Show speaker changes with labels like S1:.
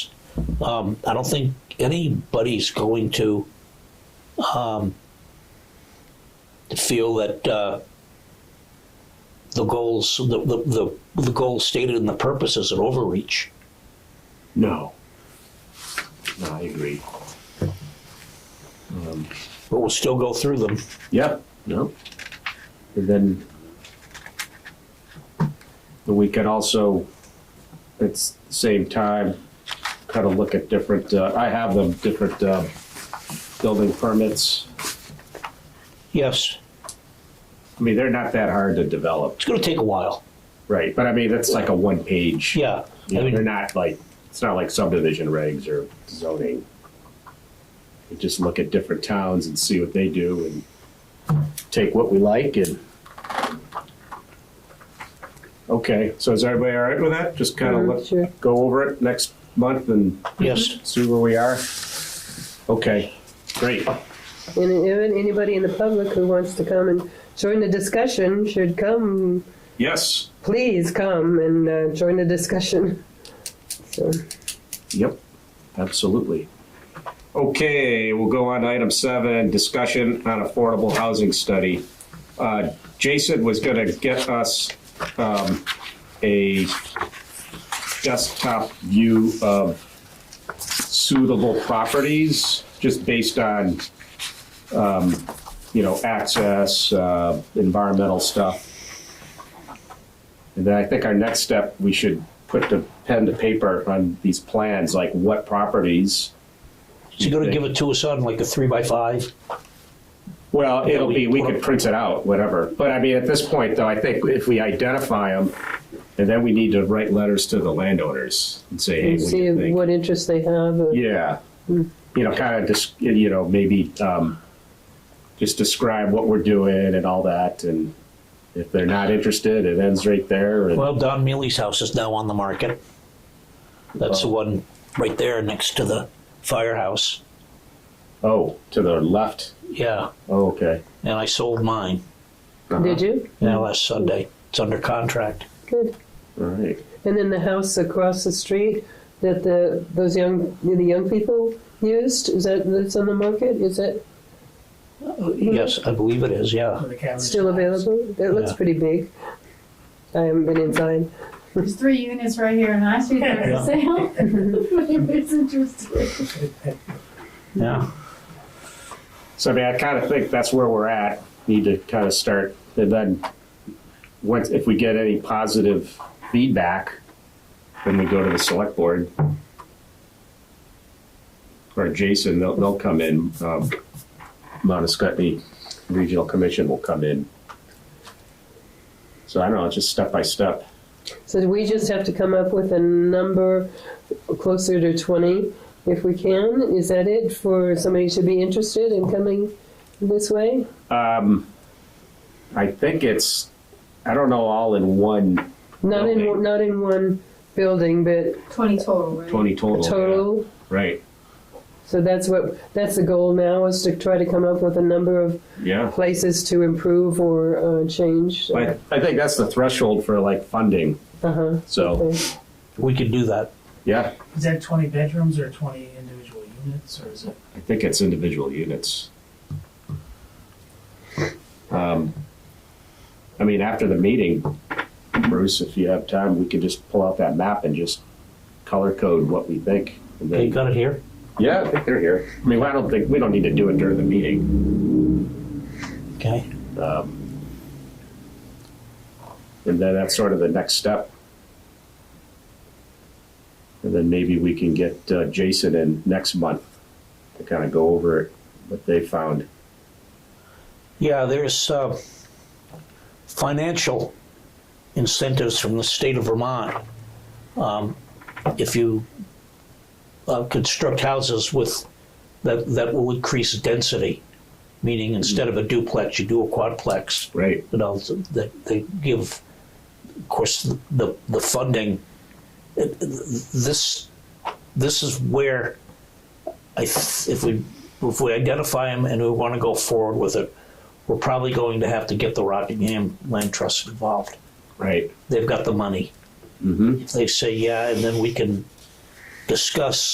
S1: Um, I don't think anybody's going to um, feel that uh, the goals, the, the, the, the goal stated in the purpose is an overreach.
S2: No. No, I agree. Um,
S1: But we'll still go through them.
S2: Yep, no. And then and we could also, at s- the same time, kind of look at different, uh, I have them, different, uh, building permits.
S1: Yes,
S2: I mean, they're not that hard to develop,
S1: it's going to take a while.
S2: right? But I mean, that's like a one-page.
S1: Yeah.
S2: You
S1: I
S2: know, They're
S1: mean,
S2: not like, it's not like subdivision regs or zoning. You Just look at different towns and see what they do and take what we like and. Okay, so is everybody all right with that? Just kind of
S3: Mhm,
S2: look,
S3: sure.
S2: go over it next month and
S1: yes.
S2: see where we are? Okay, great.
S3: And even anybody in the public who wants to come and join the discussion should come.
S2: Yes,
S3: Please come and uh, join the discussion. So,
S2: Yep, absolutely. Okay, we'll go on to item seven, discussion on affordable housing study. Uh, Jason was gonna get us um, a desktop view of suitable properties, just based on, um, you know, access, uh, environmental stuff. And then I think our next step, we should put the pen to paper on these plans, like what properties.
S1: Is he going to give it to us on like a three by five?
S2: Well, it'll be, we could print it out, whatever. But I mean, at this point, though, I think if we identify them, and then we need to write letters to the landowners and say, hey,
S3: and
S2: what do you
S3: see
S2: think?
S3: what interest they have. uh,
S2: Yeah. You know, kind of just, you know, maybe um, just describe what we're doing and all that. And if they're not interested, it ends right there. and-
S1: Well, Don Mealy's house is now on the market. That's the one right there next to the firehouse.
S2: Oh, to the left.
S1: Yeah.
S2: Oh, okay.
S1: And I sold mine
S2: Uh-huh.
S3: Did you?
S1: yeah, last Sunday. It's under contract.
S3: Good.
S2: All right.
S3: And then the house across the street that the those young the young people used is that that's on the market? Is that
S1: Yes, I believe it is. Yeah.
S3: still available? That looks
S1: Yeah.
S3: pretty big. I haven't been inside.
S4: There's three units right here in High Street that are
S1: Yeah.
S4: for sale. It's interesting.
S1: Yeah.
S2: So I mean, I kind of think that's where we're at. Need to kind of start, and then once if we get any positive feedback, then we go to the select board or Jason. They'll they'll come in. Um, Montescutney Regional Commission will come in. So I don't know, it's just step by step.
S3: So we just have to come up with a number closer to 20 if we can. Is that it for somebody to be interested in coming this way?
S2: Um, I think it's I don't know all in one
S3: Not in
S2: Building.
S3: not in one building, but
S4: Twenty total, right?
S2: twenty total. yeah.
S3: total.
S2: Right.
S3: So that's what that's the goal now is to try to come up with a number of
S2: Yeah.
S3: places to improve or uh, change.
S2: But I think that's the threshold for like funding.
S3: Uh-huh.
S2: So,
S3: Okay.
S1: We could do that.
S2: yeah,
S5: Is that twenty bedrooms or twenty individual units, or is it?
S2: I think it's individual units. Um, I mean, after the meeting, Bruce, if you have time, we could just pull out that map and just color code what we think. and
S1: Okay,
S2: then-
S1: got it here.
S2: Yeah, I think they're here. I mean, I don't think, we don't need to do it during the meeting.
S1: Okay.
S2: Um, And then that's sort of the next step. And then maybe we can get uh, Jason in next month to kind of go over it, what they found.
S1: Yeah, there's uh, financial incentives from the state of Vermont. Um, if you uh, construct houses with that, that will increase density, meaning instead of a duplex, you do a quadplex.
S2: Right.
S1: you know, they, they give, of course, the, the funding, it- this, this is where I, th- if we, if we identify them and we want to go forward with it, we're probably going to have to get the Rockingham Land Trust involved.
S2: Right.
S1: They've got the money.
S2: Mm-hmm.
S1: If they say yeah, and then we can discuss